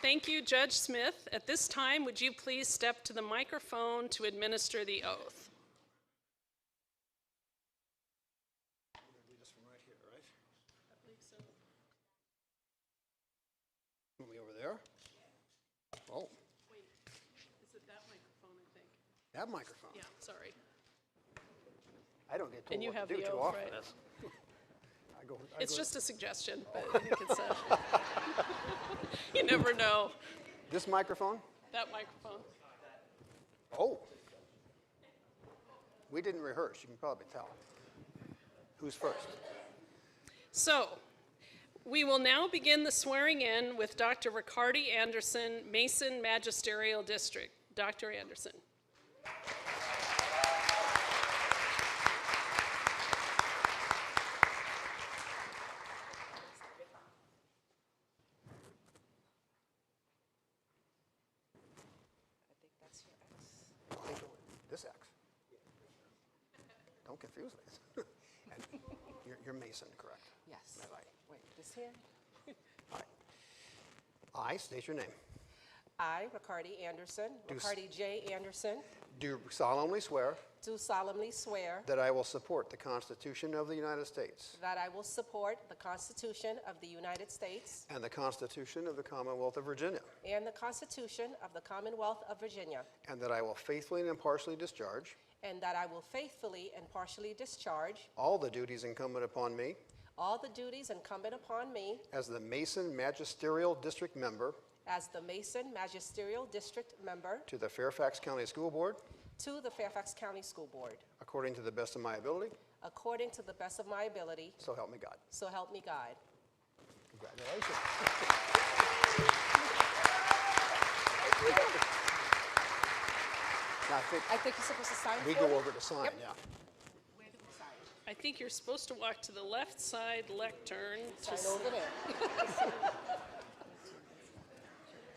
Thank you, Judge Smith. At this time, would you please step to the microphone to administer the oath? Want me over there? Oh, Wait, is it that microphone, I think? that microphone. Yeah, sorry. I don't get And told you what have to do the too oath, often. right? I go- uh, I It's go- just a suggestion, but I think it's a, you never know, This microphone? that microphone. Oh. We didn't rehearse, you can probably tell. Who's first? So, we will now begin the swearing in with Dr. Ricardi Anderson, Mason Magisterial District. Dr. Anderson. I think it- This X. Don't confuse me. And you're- You're Mason, correct? Yes. All right. Wait, this here? All right. I state your name. I, Ricardi Anderson, Do s- Ricardi J. Anderson, Do solemnly swear do solemnly swear that I will support the Constitution of the United States that I will support the Constitution of the United States and the Constitution of the Commonwealth of Virginia, and the Constitution of the Commonwealth of Virginia, and that I will faithfully and impartially discharge and that I will faithfully and partially discharge all the duties incumbent upon me all the duties incumbent upon me as the Mason Magisterial District Member as the Mason Magisterial District Member to the Fairfax County School Board to the Fairfax County School Board, according to the best of my ability, according to the best of my ability, so help me God. so help me God. Congratulations. Now, I think I think you're supposed to sign we for go it. over to sign, yeah. Where do we sign? I think you're supposed to walk to the left side lectern. Sign over there.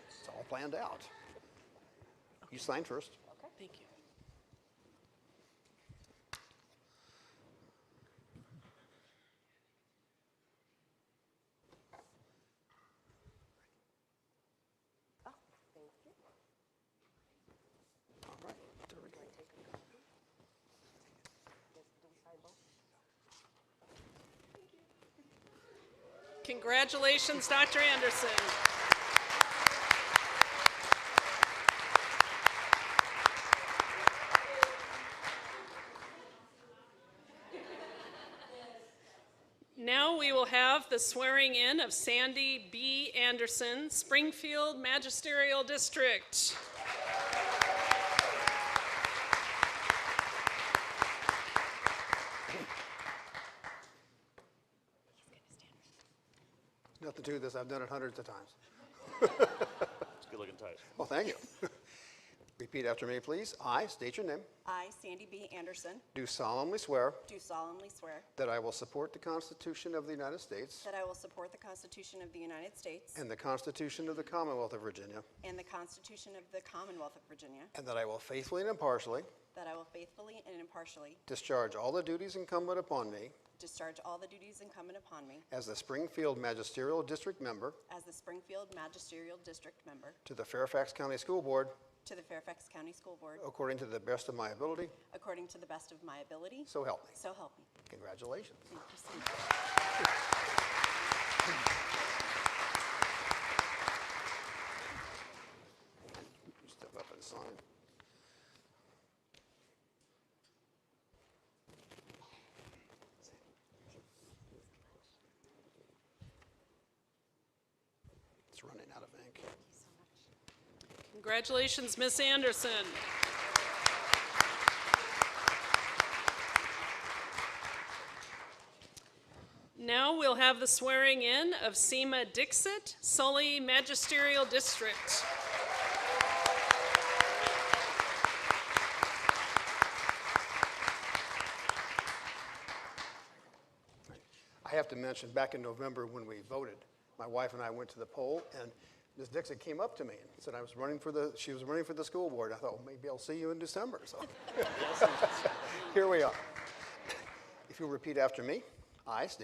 It's all planned out. You sign first. Thank you. Oh, thank you. All right, there we go. Congratulations, Dr. Anderson. Now we will have the swearing in of Sandy B. Anderson, Springfield Magisterial District. Nothing to this, I've done it hundreds of times. It's a good-looking tie. Well, thank you. Repeat after me, please. I state your name. I, Sandy B. Anderson, Do solemnly swear do solemnly swear that I will support the Constitution of the United States that I will support the Constitution of the United States and the Constitution of the Commonwealth of Virginia, and the Constitution of the Commonwealth of Virginia, and that I will faithfully and impartially that I will faithfully and impartially discharge all the duties incumbent upon me discharge all the duties incumbent upon me as the Springfield Magisterial District Member as the Springfield Magisterial District Member to the Fairfax County School Board to the Fairfax County School Board according to the best of my ability, according to the best of my ability, so help me. so help me. Congratulations. Thank you so much. Step up and sign. It's running out of ink. Congratulations, Miss Anderson. Now we'll have the swearing in of Seema Dixit, Sully Magisterial District. I have to mention, back in November when we voted, my wife and I went to the poll, and Ms. Dixon came up to me and said I was running for the, she was running for the school board. I thought, well, maybe I'll see you in December, so. Here we are. If you'll repeat after me, I state